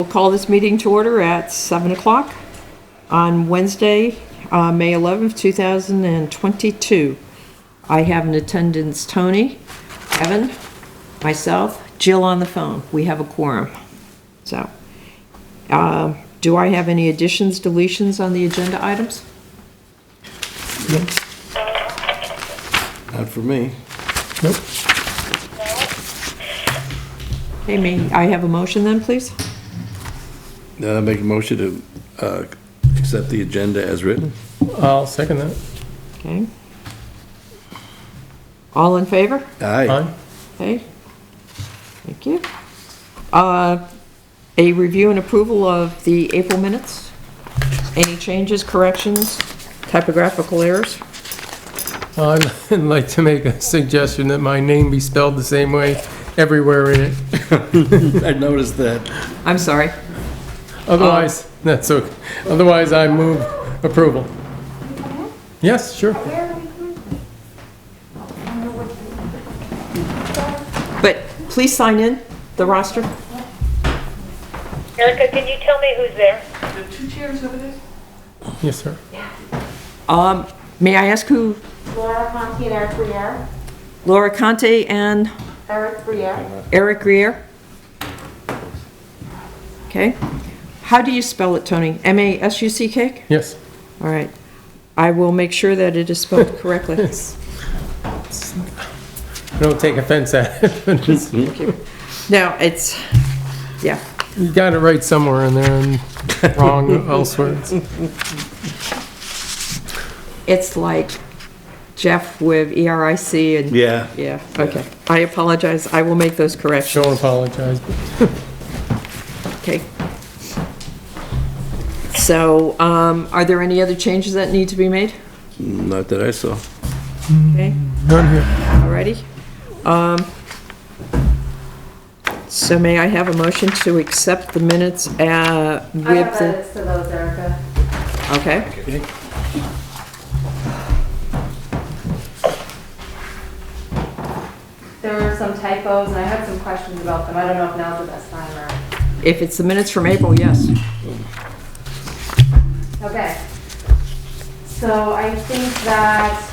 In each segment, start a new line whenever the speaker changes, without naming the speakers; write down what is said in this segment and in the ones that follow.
We'll call this meeting to order at 7 o'clock on Wednesday, uh, May 11th, 2022. I have in attendance Tony, Evan, myself, Jill on the phone. We have a quorum. So, uh, do I have any additions, deletions on the agenda items?
Not for me.
Nope.
Okay, may I have a motion then, please?
Then I make a motion to uh, accept the agenda as written.
I'll second that.
Okay. All in favor?
Aye.
Aye.
Okay. Thank you. Uh, A review and approval of the April minutes. Any changes, corrections, typographical errors?
I'd like to make a suggestion that my name be spelled the same way everywhere in it.
I noticed that.
I'm sorry.
Otherwise, that's okay. Otherwise, I move approval. Yes, sure.
But please sign in the roster.
Erica, can you tell me who's there?
Yes, sir.
Um, May I ask who
Laura Conti and Eric Briere.
Laura Conte and
Eric Briere.
Eric Greer? Okay. How do you spell it, Tony? M-A-S-U-C-K?
Yes.
All right. I will make sure that it is spelled correctly.
Don't take offense at it. but it's-
Now, it's, yeah.
You got it right somewhere in there and wrong elsewhere.
It's like Jeff with E ERIC and.
Yeah.
Yeah, okay. I apologize. I will make those corrections.
Don't apologize. but
Okay. So, um, are there any other changes that need to be made?
Not that I saw.
Okay,
None here.
alrighty. Um, so may I have a motion to accept the minutes, uh,
I have
with the,
edits to those, Erica.
okay?
There were some typos, and I had some questions about them. I don't know if now's the best time or...
If it's the minutes from April, yes.
Okay. So I think that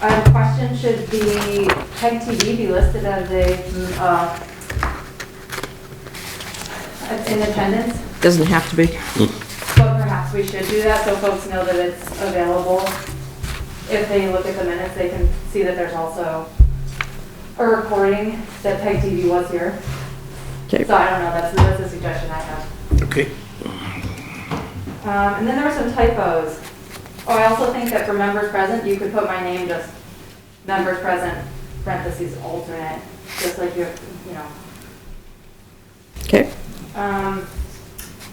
a question should be, Peg TV be listed as a, mm, uh, as in attendance?
Doesn't have to be.
But perhaps we should do that so folks know that it's available. If they look at the minutes, they can see that there's also a recording that Peg TV was here.
Okay.
So I don't know, that's, that's a suggestion I have.
Okay.
Um, and then there were some typos. Oh, I also think that for members present, you could put my name just members present, parentheses alternate, just like you, you know.
Okay,
Um,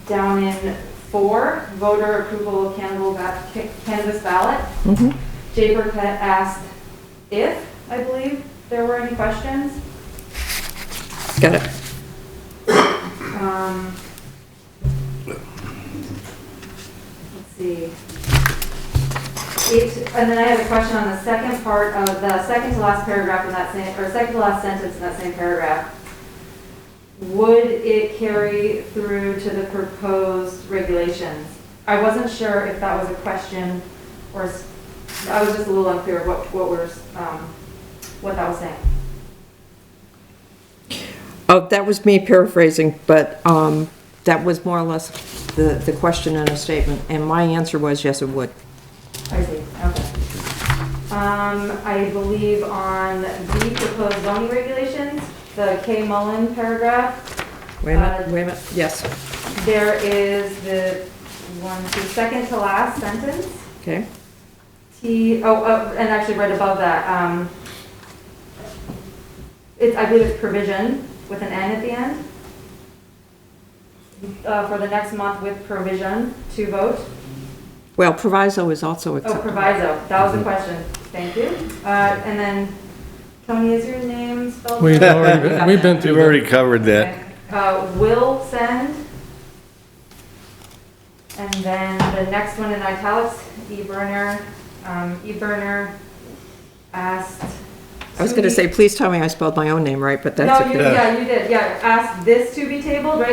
down in four, voter approval of cannibal ba- ca- canvas ballot.
mhm.
Jay Burkett asked if, I believe, there were any questions.
Got it.
Um, Let's see. It, and then I had a question on the second part of the second to last paragraph in that same, or second to last sentence in that same paragraph. Would it carry through to the proposed regulations? I wasn't sure if that was a question or, s- I was just a little unclear what, what we're, s- um, what that was saying.
Oh, that was me paraphrasing, but um, that was more or less the, the question and a statement, and my answer was yes, it would.
I see, okay. Um, I believe on the proposed zoning regulations, the K Mullen paragraph, uh,
Wait a minute, wait a minute, yes,
there is the one, the second to last sentence.
okay,
T, oh, oh, and actually right above that, um, it's, I believe it's provision with an N at the end. Uh, for the next month with provision to vote.
well, proviso is also
Oh,
acceptable.
proviso, that was the question, thank you. Uh, and then, Tony, is your name spelled?
We've already, been- we've been
We've
through that.
already covered that.
Uh, will send. And then the next one in italics, eburner, um, eburner asked.
I was gonna
to be-
say, please tell me I spelled my own name right, but that's
No,
okay.
you, yeah, you did, yeah, asked this to be tabled, right?